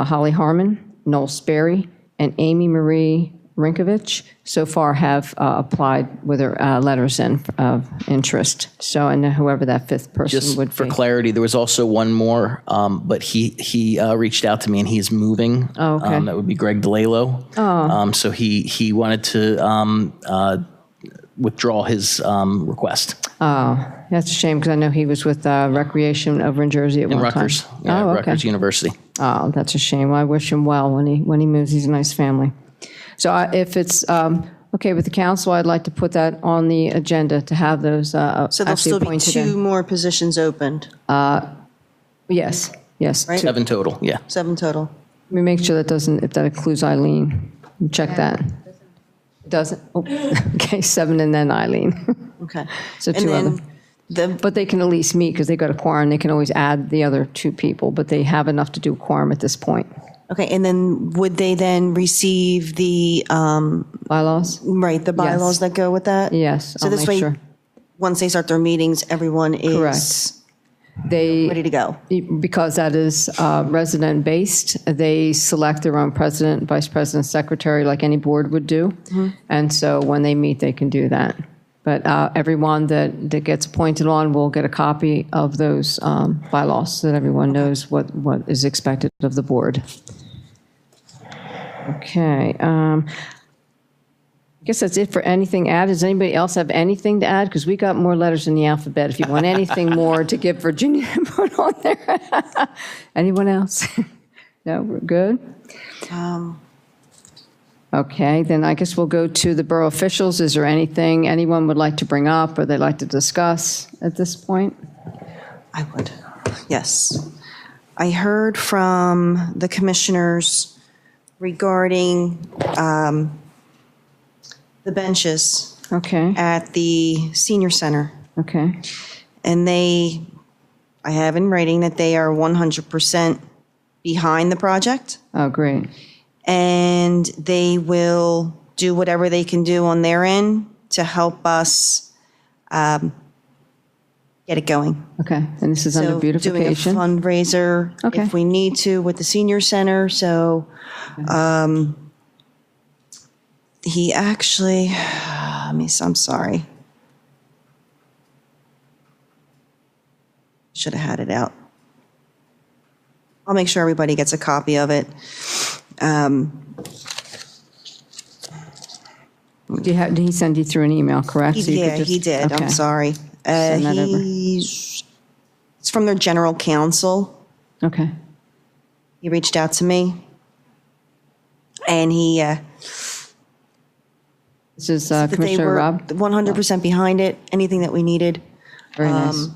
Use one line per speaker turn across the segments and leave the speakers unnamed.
Uh, Holly Harmon, Noel Sperry, and Amy Marie Rinkovich so far have uh, applied with their uh, letters in, of interest. So, and whoever that fifth person would
Just for
be.
clarity, there was also one more, um, but he, he uh, reached out to me and he's moving.
Oh, okay.
Um, That would be Greg DeLalo. Oh. Um, so he, he wanted to um, uh, withdraw his um, request.
That's a shame, because I know he was with uh, Recreation over in Jersey at one time.
Rutgers, yeah,
Oh, okay.
Rutgers University.
Oh, that's a shame. I wish him well when he, when he moves. He's a nice family. So I- if it's um, okay with the council, I'd like to put that on the agenda to have those uh,
So there'll
actually
still be
appointed
two
in.
more positions opened,
Yes, yes. two. Let
Seven total, yeah.
seven total.
me make sure that doesn't, if that includes Eileen. Check that. Doesn't, oh, okay, seven and then Eileen.
Okay.
So
And
two other-
then the,
But they can at least meet because they got a quorum. They can always add the other two people, but they have enough to do a quorum at this point.
okay, and then would they then receive the, um,
Bylaws?
right, the bylaws that go with that?
Yes,
So
I'll
this
make
way-
sure.
Once they start their meetings, everyone
Correct.
is
They.
ready to go.
because that is uh, resident-based, they select their own president, vice president, secretary, like any board would do. And so when they meet, they can do that. But uh, everyone that, that gets appointed on will get a copy of those um, bylaws, so that everyone knows what, what is expected of the board. Okay, um, I guess that's it for anything added. Does anybody else have anything to add? Because we got more letters in the alphabet. If you want anything more to give Virginia to put on there. Anyone else? No, we're good?
Um,
Okay, then I guess we'll go to the borough officials. Is there anything anyone would like to bring up or they'd like to discuss at this point?
I would, yes. I heard from the commissioners regarding um, the benches
Okay,
at the senior center.
okay,
And they, I have in writing that they are 100% behind the project,
oh, great,
and they will do whatever they can do on their end to help us um, get it going.
okay. And this is under
So doing a
beautification?
fundraiser
Okay.
if we need to with the senior center, so, um, he actually, I mean, I'm sorry. Should have had it out. I'll make sure everybody gets a copy of it. Um,
Do you have- Did he send you through an email, correct? So you could
Yeah, he
just-
did,
okay.
I'm sorry. Uh,
Send that over.
he's, it's from their general counsel.
Okay,
he reached out to me and he uh,
this is uh,
that they
Commissioner
were
Rob,
100% behind it anything that we needed
very
um,
nice.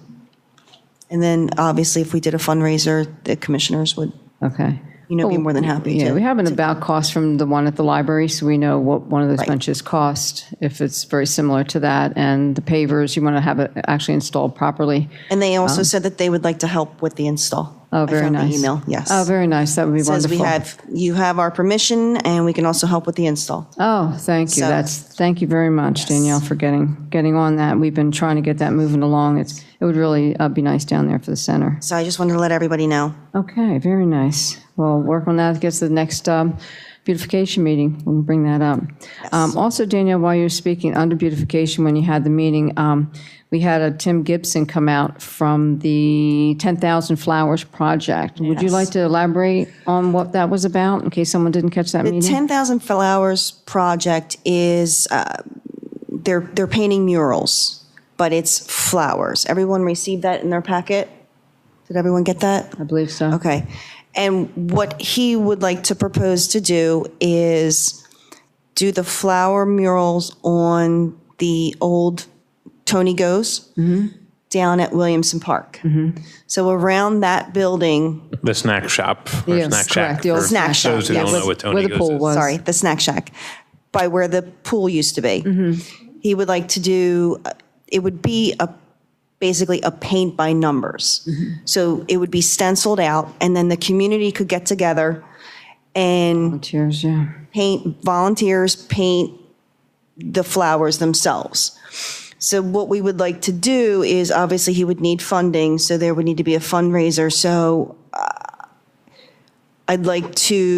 and then obviously if we did a fundraiser the commissioners would
Okay.
you know be
Well,
more than happy
Oh, Yeah,
to
we have an about cost from the one at the library, so we know what one of those
Right.
benches cost, if it's very similar to that. And the pavers, you want to have it actually installed properly.
and they also said that they would like to help with the install
Oh,
I
very
found
nice.
the email yes
Oh, very nice. That would be
says
wonderful.
we have you have our permission and we can also help with the install
Oh, thank you.
So-
That's, thank you very much, Danielle, for getting, getting on that. We've been trying to get that moving along. It's, it would really uh, be nice down there for the center.
so i just wanted to let everybody know
Okay, very nice. Well, work on that, gets to the next um, beautification meeting, we'll bring that up. Um, Also, Danielle, while you're speaking, under beautification, when you had the meeting, um, we had a Tim Gibson come out from the 10,000 Flowers Project. Would you like to elaborate on what that was about, in case someone didn't catch that
The
meeting?
10,000 Flowers project is, uh, they're, they're painting murals, but it's flowers. Everyone received that in their packet? Did everyone get that?
I believe so.
Okay. And what he would like to propose to do is do the flower murals on the old Tony Goes down at Williamson Park. So around that building,
The snack shop. Or
Yes,
snack
correct,
shack.
the old
for
snack shop,
Those who
yeah,
don't
with-
know what
where
Tony
the pool
goes
was.
is.
sorry, the snack shack, by where the pool used to be. He would like to do, it would be a, basically a paint by numbers. So it would be stenciled out, and then the community could get together and
Cheers, yeah.
paint, volunteers paint the flowers themselves. So what we would like to do is, obviously, he would need funding, so there would need to be a fundraiser. So uh, I'd like to